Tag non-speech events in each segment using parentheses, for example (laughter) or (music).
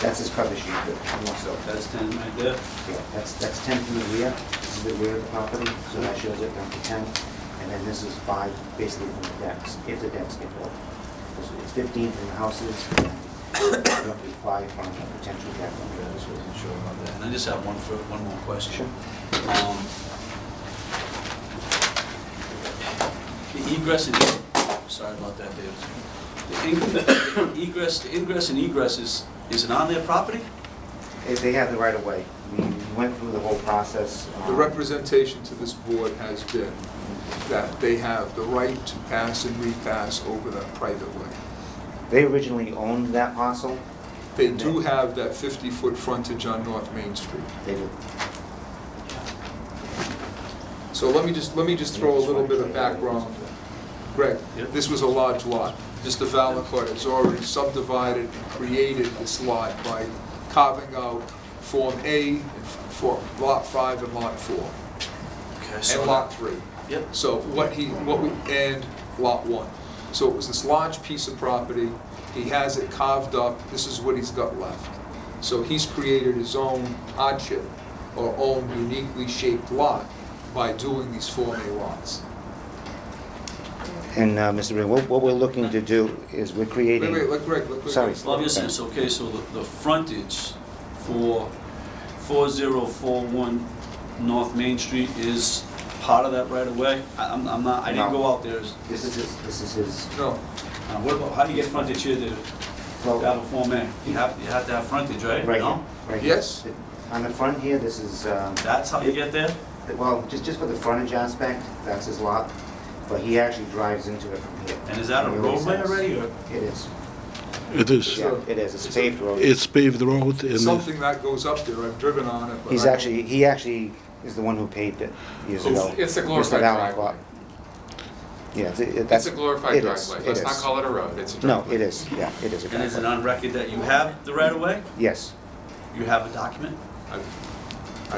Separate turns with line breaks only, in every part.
That's his cover sheet, but he wants to-
That's ten right there.
yeah, that's, that's ten from the rear, this is the rear of the property, so that shows it down to ten. And then this is five, basically from the decks, if the decks get built. So It's fifteen from the houses, and roughly five from a potential deck.
Okay, I just wasn't sure about that. And I just have one, fir- one more question.
Sure.
Um, The egress and, e-, sorry about that, David. The ing- the Egress, the ingress (coughs) and egress is, is it on their property?
If They have the right of way. We went through the whole process. um,
The representation to this board has been that they have the right to pass and repass over that private way.
They originally owned that parcel.
They do have that 50-foot frontage on North Main Street.
They did.
So let me just, let me just throw a little bit of background. Greg,
Yep.
this was a large lot. Mr. Valencourt has already subdivided and created this lot by carving out Form A and f- for Lot 5 and Lot 4,
Okay,
and Lot 3.
Yep.
So what he, what we, and Lot 1. So it was this large piece of property, he has it carved up, this is what he's got left. So he's created his own hardship, or own uniquely shaped lot, by doing these Form A lots.
And uh, Mr. Ray, what what we're looking to do is we're
Wait,
creating...
wait, let Greg, let Greg.
Sorry.
Well, I'm just saying, so, okay, so the, the frontage for four zero four one North Main Street is part of that right of way? I- I'm, I'm not, I didn't
No.
go out there. Is-
This is his, this is his,
No,
uh, What about, how do you get frontage here, David?
well,
Out of Form A, you have, you have to have frontage, right?
right here.
No?
right here.
Yes.
On the front here, this is, um,
That's how you get there?
well, just, just for the frontage aspect, that's his lot, but he actually drives into it from here.
And is that a
It really
roadway
sucks.
already, or?
It is,
It is.
yeah, it is, it's a paved road.
It's paved road and
something that goes up there, I've driven on it, but.
He's
I-
actually, he actually is the one who paved it years
It's-
ago.
it's a
Mr.
glorified
Valancourt.
driveway.
Yeah, it's- it- that's...
It's a glorified
it is,
driveway. Let's
it
not
is.
call it a road, it's a
No,
driveway.
it is, yeah, it is a
And is it
driveway.
on record that you have the right of way?
Yes,
You have a document?
I-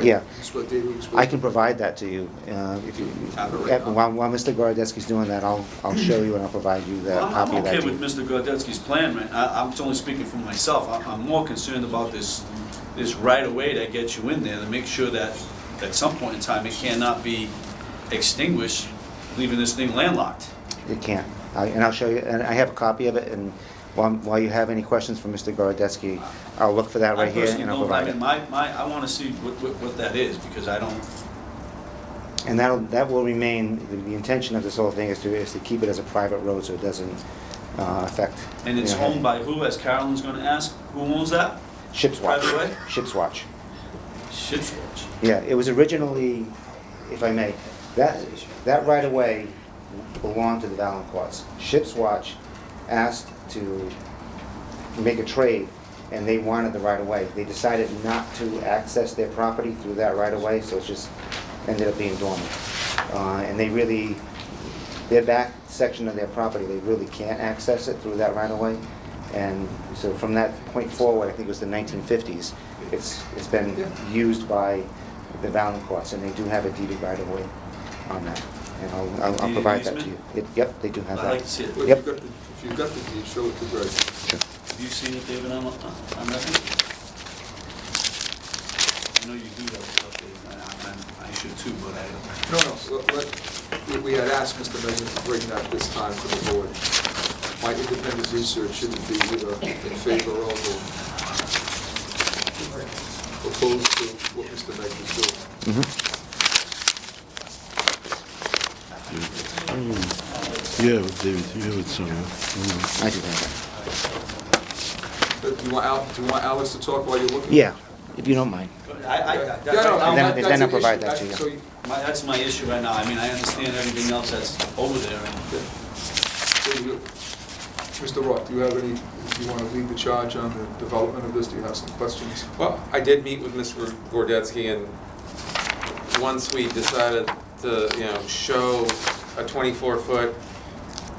yeah.
That's what David was.
I can provide that to you, uh, if you,
Have it
eh,
written up.
while, while Mr. Gorodetsky's doing that, I'll, I'll show you and I'll provide you the
Well, I'm-
copy of that.
I'm okay
to
with
you.
Mr. Gordetsky's plan, man. I- I'm only speaking for myself. I- I'm more concerned about this, this right-of-way that gets you in there to make sure that at some point in time, it cannot be extinguished, leaving this thing landlocked.
It can't, I- and I'll show you, and I have a copy of it, and while, while you have any questions for Mr. Gorodetsky, I'll look for that
I
right here
personally
and I'll
don't, I
provide
mean,
it.
my, my, I want to see what, what what that is because I don't,
And that'll, that will remain, the- the intention of this whole thing is to, is to keep it as a private road so it doesn't uh, affect.
and it's
you know,
owned by who, as Carolyn's going to ask? Who owns that?
Ship's Watch.
private way?
Ship's Watch.
Ship's Watch.
Yeah, it was originally, if I may, that, that right away belonged to the Valancourts. Ship's Watch asked to make a trade, and they wanted the right of way. They decided not to access their property through that right of way, so it just ended up being dormant. Uh, and they really, their back section of their property, they really can't access it through that right of way. And so from that point forward, I think it was the nineteen fifties, it's, it's been
Yeah.
used by the Valancourts, and they do have a deeded right of way on that. And I'll- I'll, I'll
Deeded
provide that to you.
easement?
It- Yep, they do have that.
I'd like to see it.
If you've
Yep.
got the, if you've got the deed, show it to Greg.
Have you seen it, David, on, on on record? I know you do that stuff, David, and I, I- I should too, but I don't.
No, no, let- let, we- we had asked Mr. Mezzan to bring that this time to the board. My independent research shouldn't be either in favor of or opposed to what Mr. Mezzan is doing.
yeah, David, you have it somewhere.
I do have that.
But Do you want Al, do you want Alex to talk while you're looking?
Yeah, if you don't mind.
I, I,
Yeah,
that-
no, no,
that-
And then-
that-
then
that's
I'll
an
provide
issue.
that to you.
So you.
my- that's my issue right now, I mean, I understand everything else that's over there, and
So you- Mr. Roth, do you have any, do you want to lead the charge on the development of this? Do you have some questions?
Well, I did meet with Mr. Gordetsky, and once we decided to, you know, show a 24-foot,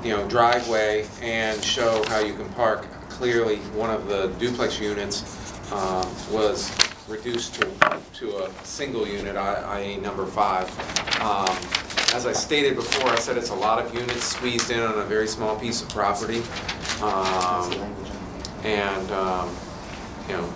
you know, driveway and show how you can park, clearly, one of the duplex units um, was reduced to, to a single unit, I- i.e. number five. Um, As I stated before, I said it's a lot of units squeezed in on a very small piece of property.
That's the
Um,
language on here.
And, um, you know,